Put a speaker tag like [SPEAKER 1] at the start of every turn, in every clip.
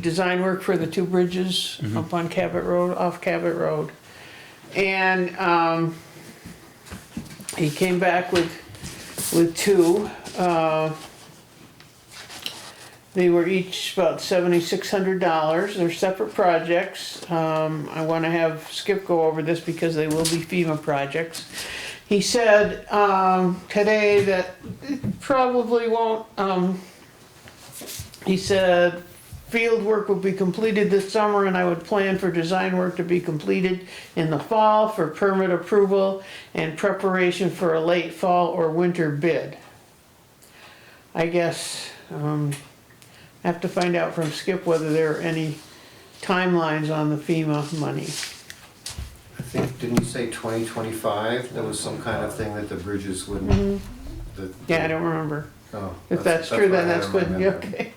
[SPEAKER 1] design work for the two bridges up on Cabot Road, off Cabot Road. And, um, he came back with, with two, uh, they were each about seventy-six hundred dollars, they're separate projects, um, I wanna have Skip go over this because they will be FEMA projects. He said, um, today that it probably won't, um, he said, field work will be completed this summer and I would plan for design work to be completed in the fall for permit approval and preparation for a late fall or winter bid. I guess, um, I have to find out from Skip whether there are any timelines on the FEMA money.
[SPEAKER 2] I think, didn't you say twenty twenty-five? There was some kind of thing that the bridges wouldn't. the-
[SPEAKER 1] Mm-hmm. Yeah, I don't remember.
[SPEAKER 2] Oh,
[SPEAKER 1] If that's true,
[SPEAKER 2] why I
[SPEAKER 1] then that's
[SPEAKER 2] don't
[SPEAKER 1] good, Yeah,
[SPEAKER 2] remember.
[SPEAKER 1] okay.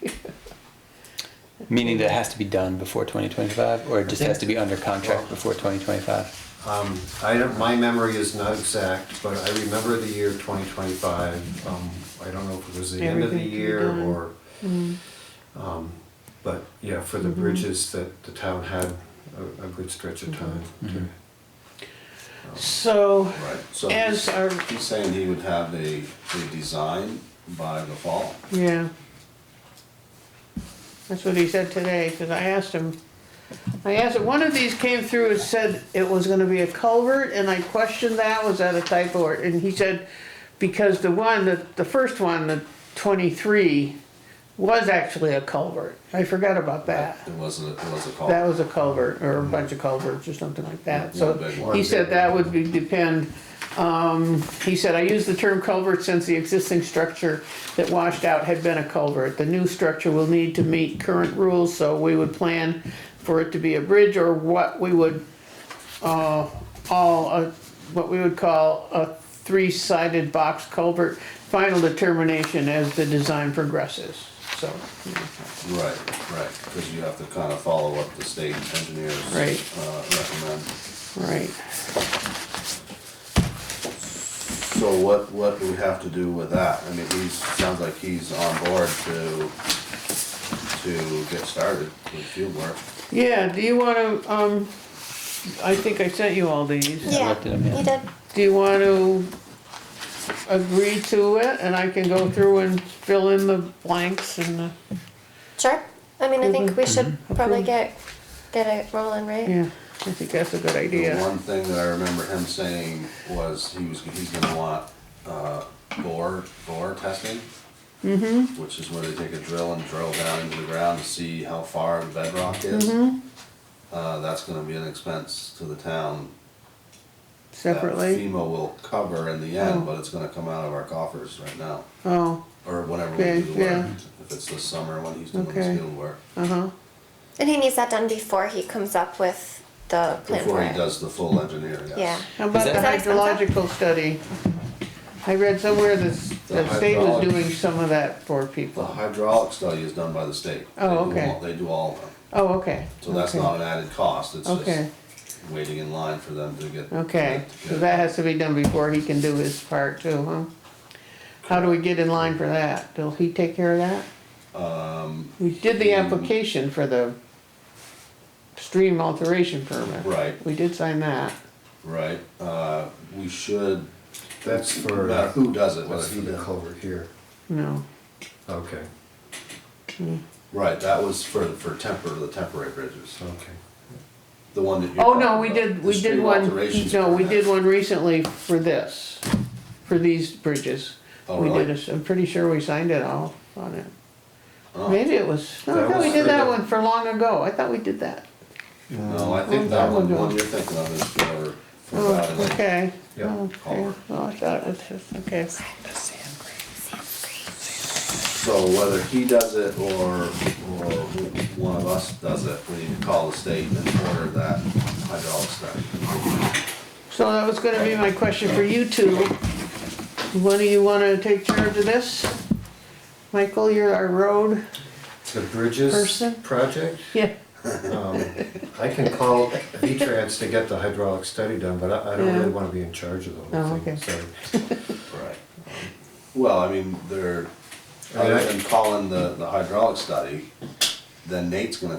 [SPEAKER 3] Meaning that it has to be done before 2025, or it just
[SPEAKER 2] think-
[SPEAKER 3] has to be under contract before 2025?
[SPEAKER 2] Um, I don't, my memory is not exact, but I remember the year twenty twenty-five. Um, I don't know if it was the end of the
[SPEAKER 1] Everything can be
[SPEAKER 2] year
[SPEAKER 1] done.
[SPEAKER 2] or. Um, but yeah, for
[SPEAKER 1] Mm-hmm.
[SPEAKER 2] the bridges that the town had a, a good stretch of time
[SPEAKER 4] Mm-hmm.
[SPEAKER 2] to.
[SPEAKER 1] So,
[SPEAKER 4] Right, so
[SPEAKER 1] as
[SPEAKER 4] he's
[SPEAKER 1] our,
[SPEAKER 4] he's saying he would have the, the design by the fall.
[SPEAKER 1] yeah. That's what he said today, cause I asked him, I asked him, one of these came through and said it was gonna be a culvert, and I questioned that, was that a typo, or- and he said, because the one, the, the first one, the twenty-three, was actually a culvert, I forgot about that.
[SPEAKER 4] It wasn't, it was a call.
[SPEAKER 1] That was a culvert, or a bunch of culverts or something like that, so
[SPEAKER 4] One big
[SPEAKER 2] one.
[SPEAKER 1] he said that would be depend. Um, he said, I use the term culvert since the existing structure that washed out had been a culvert. The new structure will need to meet current rules, so we would plan for it to be a bridge or what we would, uh, all, uh, what we would call a three-sided box culvert. Final determination as the design progresses, so,
[SPEAKER 4] Right, right, because you have to kind of follow up the state engineers.
[SPEAKER 1] Right.
[SPEAKER 4] Uh, recommend.
[SPEAKER 1] right.
[SPEAKER 4] So what, what do we have to do with that? I mean, he's, sounds like he's on board to, to get started with field work.
[SPEAKER 1] Yeah, do you wanna, um, I think I sent you all these.
[SPEAKER 3] I
[SPEAKER 5] Yeah,
[SPEAKER 3] looked at 'em, yeah.
[SPEAKER 5] you did.
[SPEAKER 1] Do you wanna agree to it and I can go through and fill in the blanks and, uh,
[SPEAKER 5] Sure. I mean, I think we should probably
[SPEAKER 1] Approve.
[SPEAKER 5] get get it rolling, right?
[SPEAKER 1] yeah, I think that's a good
[SPEAKER 4] The
[SPEAKER 1] idea.
[SPEAKER 4] one thing that I remember him saying was he was, he's gonna want, uh, bore, bore testing.
[SPEAKER 1] Mm-hmm.
[SPEAKER 4] Which is where they take a drill and drill down into the ground to see how far the bedrock is.
[SPEAKER 1] Mm-hmm.
[SPEAKER 4] Uh, that's gonna be an expense to the town. that
[SPEAKER 1] Separately,
[SPEAKER 4] FEMA will cover in the
[SPEAKER 1] Oh.
[SPEAKER 4] end, but it's gonna come out of our coffers right now,
[SPEAKER 1] oh,
[SPEAKER 4] or whenever
[SPEAKER 1] Okay,
[SPEAKER 4] we do the work.
[SPEAKER 1] yeah.
[SPEAKER 4] If it's this summer when he's doing
[SPEAKER 1] Okay.
[SPEAKER 4] his field work,
[SPEAKER 1] uh-huh,
[SPEAKER 5] And he needs that done before he comes up with the plan
[SPEAKER 4] before
[SPEAKER 5] for
[SPEAKER 4] he
[SPEAKER 5] it.
[SPEAKER 4] does the full engineer, yes.
[SPEAKER 5] Yeah.
[SPEAKER 1] how about the
[SPEAKER 3] Is
[SPEAKER 5] that- Is that
[SPEAKER 1] hydrological study? I read somewhere that, s-
[SPEAKER 4] The
[SPEAKER 1] the state was
[SPEAKER 4] hydrology.
[SPEAKER 1] doing some of that for
[SPEAKER 4] The
[SPEAKER 1] people.
[SPEAKER 4] hydraulic study is done by the state.
[SPEAKER 1] Oh,
[SPEAKER 4] They do
[SPEAKER 1] okay.
[SPEAKER 4] all- They do all of them.
[SPEAKER 1] Oh, okay.
[SPEAKER 4] So that's
[SPEAKER 1] okay,
[SPEAKER 4] not an added cost, it's
[SPEAKER 1] Okay.
[SPEAKER 4] just waiting in line for them to get.
[SPEAKER 1] Okay,
[SPEAKER 4] to
[SPEAKER 1] so
[SPEAKER 4] get-
[SPEAKER 1] that has to be done before he can do his part too, huh? How do we get in line for that? Will he take care of that? Um. We did the application for the stream alteration permit.
[SPEAKER 4] Right.
[SPEAKER 1] We did sign that.
[SPEAKER 4] Right, uh, we should,
[SPEAKER 2] That's for.
[SPEAKER 4] No matter who does it, whether
[SPEAKER 2] That's for
[SPEAKER 4] he
[SPEAKER 2] the
[SPEAKER 4] does it.
[SPEAKER 2] culvert here.
[SPEAKER 1] No,
[SPEAKER 2] Okay,
[SPEAKER 4] right, that was for, for temper, the temporary bridges,
[SPEAKER 2] okay.
[SPEAKER 4] the one that you.
[SPEAKER 1] oh, no, we did, we did one, no, we did one recently for this, for these bridges.
[SPEAKER 4] Oh,
[SPEAKER 1] We
[SPEAKER 4] really?
[SPEAKER 1] did, a- I'm pretty sure we signed it all on it.
[SPEAKER 4] Oh,
[SPEAKER 1] Maybe it was, no, I
[SPEAKER 2] That
[SPEAKER 1] thought we
[SPEAKER 2] was
[SPEAKER 1] did
[SPEAKER 2] for
[SPEAKER 1] that
[SPEAKER 2] the-
[SPEAKER 1] one for long ago. I thought we did that.
[SPEAKER 4] No, I think that one, the one you're thinking of is for, for
[SPEAKER 1] Oh,
[SPEAKER 4] that, like,
[SPEAKER 1] okay.
[SPEAKER 2] Yeah,
[SPEAKER 1] Oh, Okay,
[SPEAKER 4] culvert.
[SPEAKER 1] oh, I thought, it was- okay,
[SPEAKER 4] so whether he does it or, or one of us does it, we need to call the state and order that hydraulic study.
[SPEAKER 1] so that was gonna be my question for you two. One of you wanna take charge of this? Michael, you're our road
[SPEAKER 2] The bridges
[SPEAKER 1] Person?
[SPEAKER 2] project?
[SPEAKER 1] Yeah.
[SPEAKER 2] Um, I can call V-Trans to get the hydraulic study done, but I, I don't
[SPEAKER 1] Yeah.
[SPEAKER 2] really wanna be in charge of the
[SPEAKER 1] Oh,
[SPEAKER 2] whole thing,
[SPEAKER 1] okay.
[SPEAKER 2] so.
[SPEAKER 4] Right. Well, I mean, they're,
[SPEAKER 2] I mean, I-
[SPEAKER 4] other than calling the, the hydraulic study, then Nate's gonna